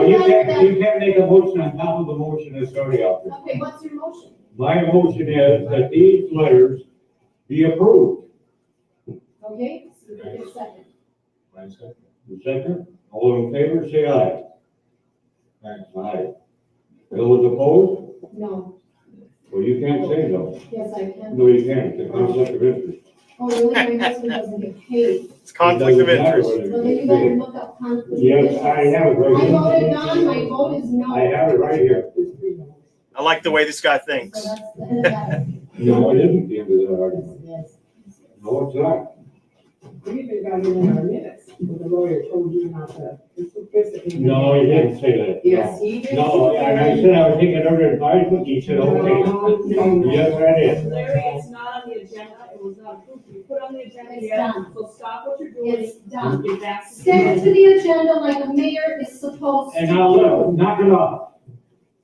can't, then, you can't make a motion on top of the motion that's already out there. okay, what's your motion? My motion is that these letters be approved. Okay, so you can second. My second. The second, all in favor, say aye. Aye. Aye. Those opposed? No, Well, you can't say no. yes, I can. No, you can't, it's a conflict of interest. Oh, really, my husband doesn't get paid. It's conflict of It doesn't matter interest. whether Well, then you it's better paid. look up conflict. Yes, I have it I right voted non, my vote is here. no. I have it right here. I like the way this guy So thinks. that's the end of that. No, it isn't the end of the argument. No, it's not. We even got it in our minutes, when the lawyer told you not to, it's a precedent. No, he didn't say that. Yes, he did. No, and I said I would take it under advisement, he said, okay. Yes, that is. Larry, it's not on the agenda, it was not approved, you put on the agenda It's yet, done. so stop what you're doing, It's done. get back to. the- Send it to the agenda like a mayor is supposed to. And now, look, knock it off.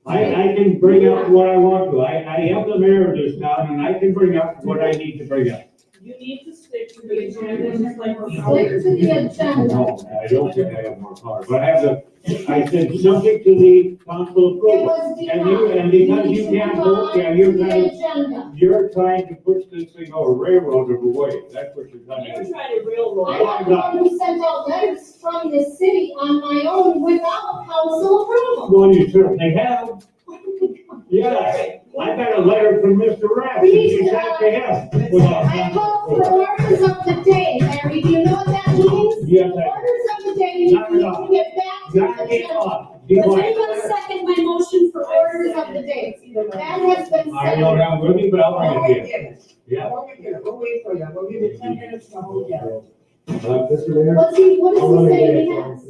I, I can bring up what I want to, I, I am the mayor of this town, and I can bring up what I need to bring up. You need to stick to the agenda, just like we Stick to the agenda. No, I don't think I have more power, but I have the, I said, subject to the council It approval. was And you- denied. and because need you to can't move vote, yeah, on you're to the trying- agenda. You're trying to push this thing over railroad of a way, that's what you're trying to You're do. trying to Oh, railroad. I am the one who sent out letters from this city on my own without council approval. Well, you certainly have, What did we come? yes. I got a letter from Mr. Rapp, and you sent to him. without- I called for orders of the day, Larry, do you know what that means? Yes, I, Orders of the day, you Knock it need to off. get back to the got it agenda. off. Do you Does want- anyone second my motion for orders of the day? That has been I know seconded. that with you, but I'll We'll bring it wait here, for you. yeah. We'll wait for you. We'll wait for you. We'll give you ten minutes to hold you. Uh, Mr. Mayor? What's he, what I'll does he let say he you- has?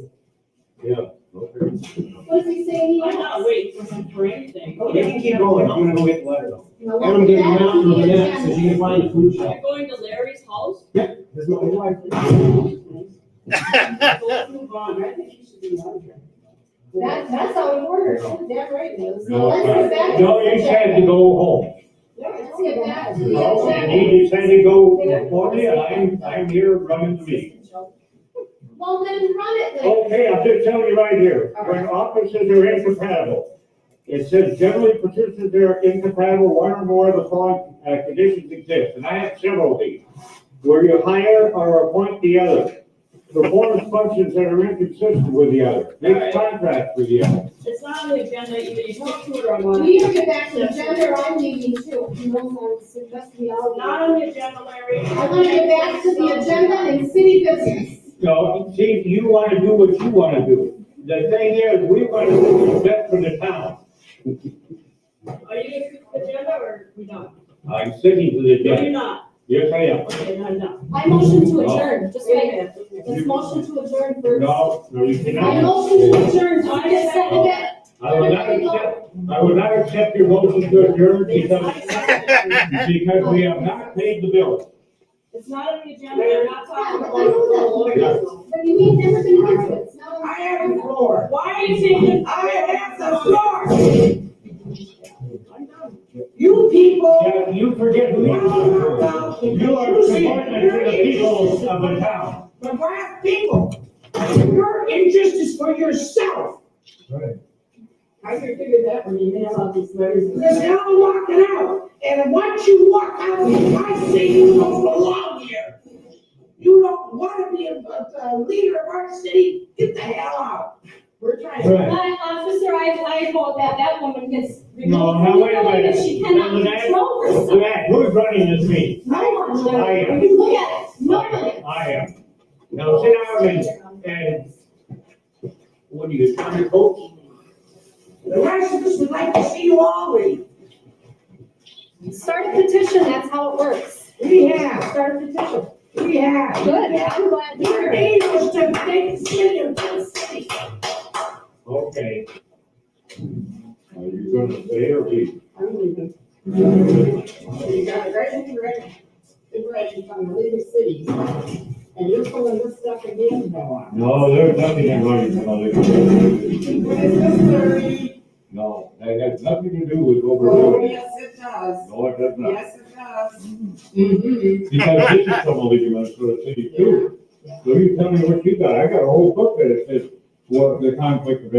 Yeah. okay. What does he say he has? I'm not waiting for him for anything. Oh, You can keep going, I'm gonna go get the letter. Now, what does that have to do with the agenda? can find a food You're going to Larry's house? There's no way. Let's move on. I think you should be out here. That, that's how it works, that right, Liz. Now, let's get back to No, the you said to agenda. go home. Let's get back to the No, agenda. and he decided to go, for me, and I'm, I'm here running the meeting. Well, then run it then. Okay, I'm just telling you right here, when offices are incompatible, it says generally participants are incompatible, one or more of the following uh, conditions exist, and I have several of these. Where you hire or appoint the other, performs functions that are inconsistent with the other, makes contracts with the other. It's not on the agenda, either you talk to it or I'm on. We need to get back to the agenda, or I'm leaving too. You know, I suggest we all. Not on the agenda, Larry. I want to get back to the agenda and city business. So, see, you wanna do what you wanna do. The thing is, we wanna do what's best for the town. Are you going to the agenda or we not? I'm sticking to the No, you're agenda. not. Yes, I am. Okay, no, no. I motion to adjourn, just like, Wait a minute. let's motion to adjourn first. No, no, you I cannot. motion to adjourn, do I get second that? I will not accept, I will not accept your motion to adjourn because, because we have not paid the bill. It's not on the agenda, I'm not Yeah, talking but about. I know that. But you mean everything gets it. It's not on- I have the floor. Why are you taking? I have the floor. You people. Yeah, you forget who you are. You are the appointment for the people of the town. The black people. Your interest is for yourself. I can figure that when you mail out these letters. Because now I'm walking out, and once you walk out, I say you don't belong here. You don't want to be a, a- a leader of our city, get the hell out. We're trying to. Right. But officer, I, I vote that that woman gets No, now removed from the wait a building minute. if she cannot Lynette, control herself. Lynette, who's running this meeting? No one, I Larry. am. You look at it, nobody. I am. Now sit down and, and what do you, trying to vote? The rest of us would like to see you all leave. Start a petition, that's how it works. We have, Start a petition. we have. Good, I'm glad to hear Your it. aim was to make the city of this city. Okay. Are you gonna stay or leave? I'm leaving. You got a great direction, direction from the leading cities, and you're pulling this stuff again, Noah. No, there's nothing in writing about it. Missouri, No, that has nothing to do with oh, overruling. yes, it does, No, it does not. yes, it does. Mm-hmm. Because this is from a legal Minnesota city too. So you tell me what you got. I got a whole book that says what the conflict of interest